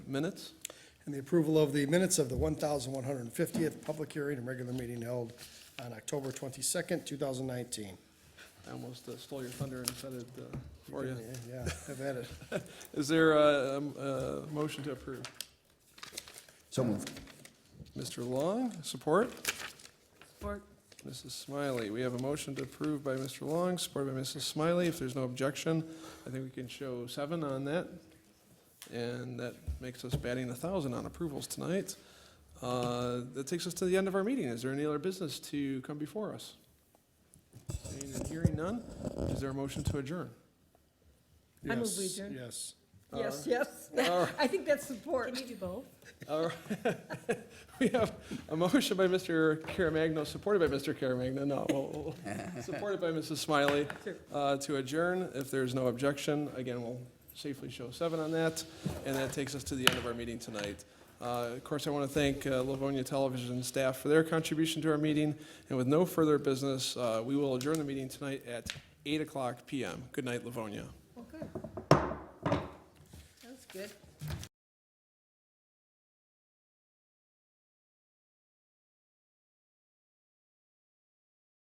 minutes? and the approval of the minutes of the 1,150th public hearing and regular meeting held on October 22nd, 2019. I almost uh, stole your thunder and said it uh, for you. Yeah, I've had it. Is there a, um, a motion to approve? So moved. Mr. Long, support? Support. Mrs. Smiley, we have a motion to approve by Mr. Long, supported by Mrs. Smiley. If there's no objection, I think we can show seven on that. And that makes us batting a thousand on approvals tonight. Uh, That takes us to the end of our meeting. Is there any other business to come before us? Seeing and hearing none, is there a motion to adjourn? I move Yes, we adjourn. Yes. Yes, yes. All I think that's support. Can you do both? All right. We have a motion by Mr. Caremagna, supported by Mr. Caremagna, no, well, well, supported by Mrs. Smiley, Sure. uh, to adjourn. If there's no objection, again, we'll safely show seven on that, and that takes us to the end of our meeting tonight. Uh, Of course, I want to thank uh, Livonia Television staff for their contribution to our meeting, and with no further business, uh, we will adjourn the meeting tonight at 8 o'clock PM. Good night, Livonia. Well, good. That's good.